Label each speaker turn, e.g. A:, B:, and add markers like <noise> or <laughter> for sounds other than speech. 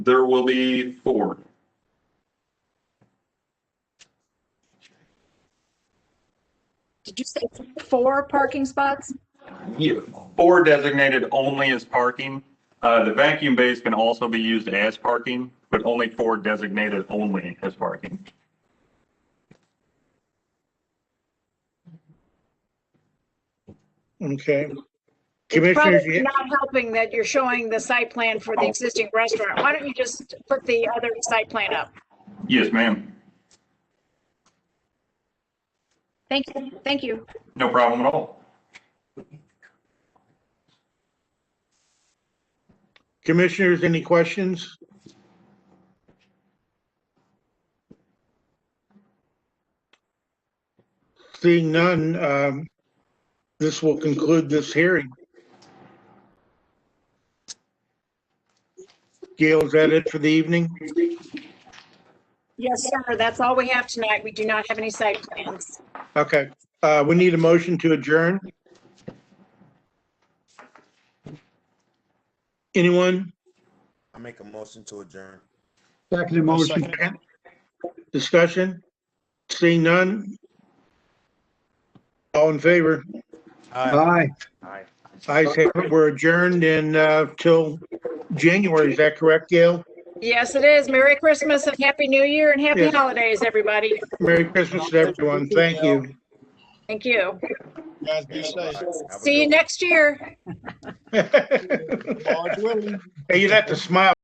A: There will be four.
B: Did you say four parking spots?
A: Yeah, Four designated only as parking. Uh, The vacuum bays can also be used as parking, but only four designated only as parking.
C: Okay.
B: It's
C: Commissioners,
B: probably
C: you-
B: not helping that you're showing the site plan for the existing restaurant. Why don't you just put the other site plan up?
A: Yes, ma'am.
B: Thank you, thank you.
A: No problem at all.
C: commissioners, any questions? Seeing none, um, this will conclude this hearing. Gail, is that it for the evening?
B: Yes, sir, that's all we have tonight. We do not have any site plans.
C: Okay, uh, we need a motion to adjourn. Anyone?
D: I make a motion to adjourn.
E: Second motion,
C: Discussion? Seeing none? All in favor?
E: aye.
C: I say we're adjourned and, uh, till January, is that correct, Gail?
B: Yes, it is. Merry Christmas and Happy New Year and Happy
C: Yes.
B: Holidays, everybody.
C: Merry Christmas to everyone, thank you. <laughs>
B: Thank you.
F: Guys, be safe.
D: Have a
B: See you
D: good one.
B: next year.
C: Hey,
F: Lord's willing.
C: you'd have to smile